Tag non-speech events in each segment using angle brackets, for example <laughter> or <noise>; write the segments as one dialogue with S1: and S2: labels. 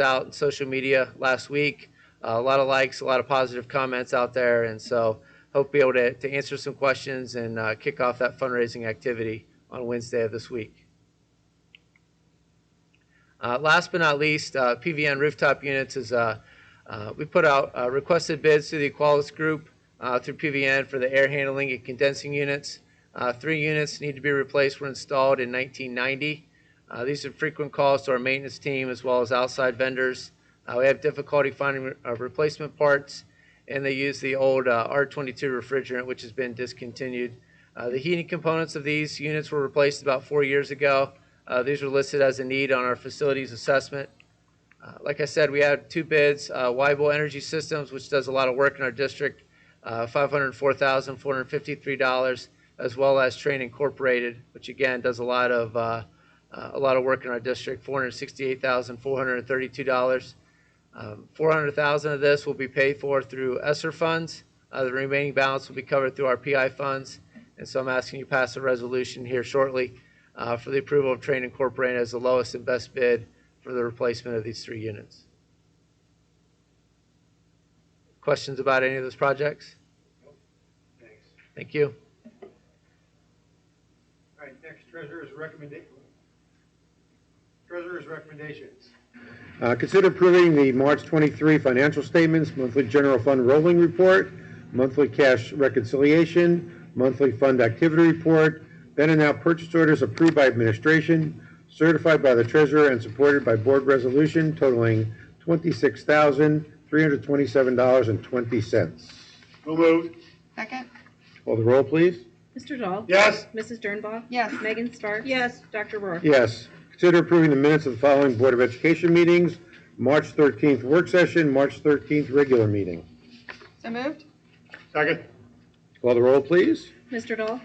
S1: out in social media last week. Uh, a lot of likes, a lot of positive comments out there, and so hope to be able to, to answer some questions and uh, kick off that fundraising activity on Wednesday of this week. Uh, last but not least, uh, PVN rooftop units is uh, uh, we put out uh, requested bids through the Equalis Group uh, through PVN for the air handling and condensing units. Uh, three units need to be replaced. Were installed in 1990. Uh, these are frequent calls to our maintenance team as well as outside vendors. Uh, we have difficulty finding re- uh, replacement parts, and they use the old uh, R22 refrigerant, which has been discontinued. Uh, the heating components of these units were replaced about four years ago. Uh, these are listed as a need on our facilities assessment. Uh, like I said, we had two bids, uh, Weibel Energy Systems, which does a lot of work in our district, uh, $504,453, as well as Train Incorporated, which again, does a lot of, uh, uh, a lot of work in our district, $468,432. Um, 400,000 of this will be paid for through ESSER funds. Uh, the remaining balance will be covered through our PI funds. And so I'm asking you to pass a resolution here shortly uh, for the approval of Train Incorporated as the lowest and best bid for the replacement of these three units. Questions about any of those projects?
S2: Thanks.
S1: Thank you.
S2: All right, next, treasurer's recommendation. Treasurer's recommendations.
S3: Uh, Consider approving the March 23 financial statements, monthly general fund rolling report, monthly cash reconciliation, monthly fund activity report, then and now purchase orders approved by administration, certified by the treasurer and supported by board resolution totaling $26,327.20.
S2: So moved.
S4: Second?
S3: Call the roll, please.
S5: Mr. Dahl?
S2: Yes.
S5: Mrs. Dernbaugh?
S4: Yes.
S5: Megan Sparks?
S6: Yes.
S5: Dr. Rohr?
S3: Yes. Consider approving the minutes of the following Board of Education meetings, March 13th work session, March 13th regular meeting.
S4: So moved?
S2: Second.
S3: Call the roll, please.
S5: Mr. Dahl?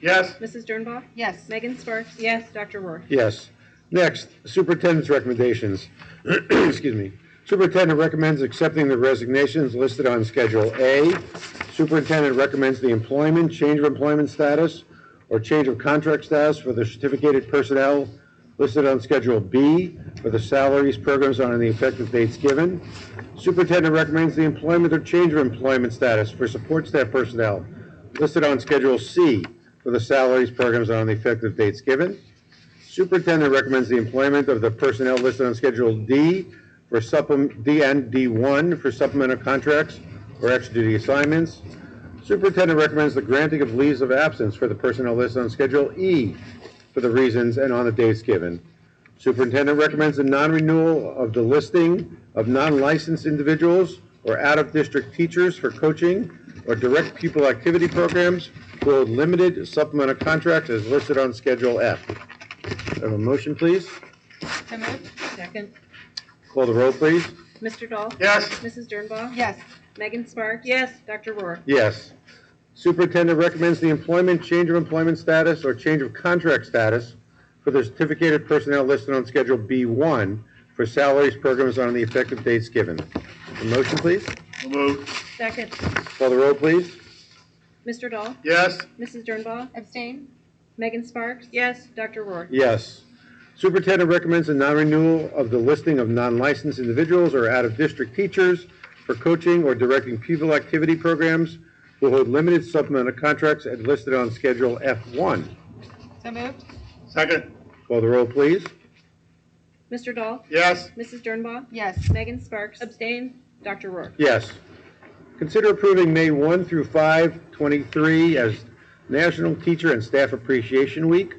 S2: Yes.
S5: Mrs. Dernbaugh?
S4: Yes.
S5: Megan Sparks?
S6: Yes.
S5: Dr. Rohr?
S3: Yes. Next, superintendent's recommendations. <clears throat> Excuse me. Superintendent recommends accepting the resignations listed on Schedule A. Superintendent recommends the employment, change of employment status, or change of contract status for the certificated personnel listed on Schedule B for the salaries, programs on, and the effective dates given. Superintendent recommends the employment or change of employment status for support staff personnel listed on Schedule C for the salaries, programs on, and the effective dates given. Superintendent recommends the employment of the personnel listed on Schedule D for supplement, D and D1 for supplemental contracts or extra duty assignments. Superintendent recommends the granting of leaves of absence for the personnel listed on Schedule E for the reasons and on the dates given. Superintendent recommends the non-renewal of the listing of non-licensed individuals or out-of-district teachers for coaching or direct pupil activity programs who hold limited supplemental contracts as listed on Schedule F. I Have a motion, please?
S4: So moved?
S6: Second.
S3: Call the roll, please.
S5: Mr. Dahl?
S2: Yes.
S5: Mrs. Dernbaugh?
S4: Yes.
S5: Megan Sparks?
S6: Yes.
S5: Dr. Rohr?
S3: Yes. Superintendent recommends the employment, change of employment status, or change of contract status for the certificated personnel listed on Schedule B1 for salaries, programs on the effective dates given. A motion, please?
S2: So moved.
S6: Second.
S3: Call the roll, please.
S5: Mr. Dahl?
S2: Yes.
S5: Mrs. Dernbaugh?
S4: Abstain?
S5: Megan Sparks?
S6: Yes.
S5: Dr. Rohr?
S3: Yes. Superintendent recommends a non-renewal of the listing of non-licensed individuals or out-of-district teachers for coaching or directing pupil activity programs who hold limited supplemental contracts as listed on Schedule F1.
S4: So moved?
S2: Second.
S3: Call the roll, please.
S5: Mr. Dahl?
S2: Yes.
S5: Mrs. Dernbaugh?
S4: Yes.
S5: Megan Sparks?
S6: Abstain.
S5: Dr. Rohr?
S3: Yes. Consider approving May 1 through 5, 23 as National Teacher and Staff Appreciation Week,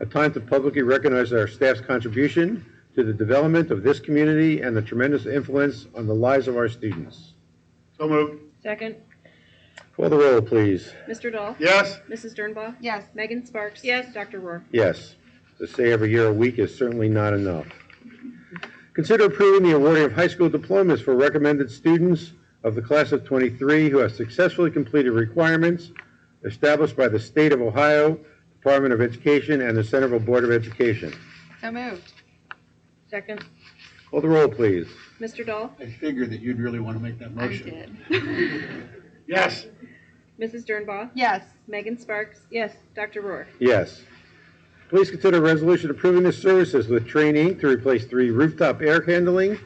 S3: a time to publicly recognize our staff's contribution to the development of this community and the tremendous influence on the lives of our students.
S2: So moved.
S5: Second.
S3: Call the roll, please.
S5: Mr. Dahl?
S2: Yes.
S5: Mrs. Dernbaugh?
S4: Yes.
S5: Megan Sparks?
S6: Yes.
S5: Dr. Rohr?
S3: Yes, to say every year a week is certainly not enough. Consider approving the awarding of high school diplomas for recommended students of the class of 23 who have successfully completed requirements established by the State of Ohio Department of Education and the Centerville Board of Education.
S4: So moved?
S6: Second.
S3: Call the roll, please.
S5: Mr. Dahl?
S7: I figured that you'd really want to make that
S4: I
S7: motion.
S4: did.
S2: Yes.
S5: Mrs. Dernbaugh?
S4: Yes.
S5: Megan Sparks?
S6: Yes.
S5: Dr. Rohr?
S3: Yes. Please consider a resolution approving the services with Train Inc. to replace three rooftop air handling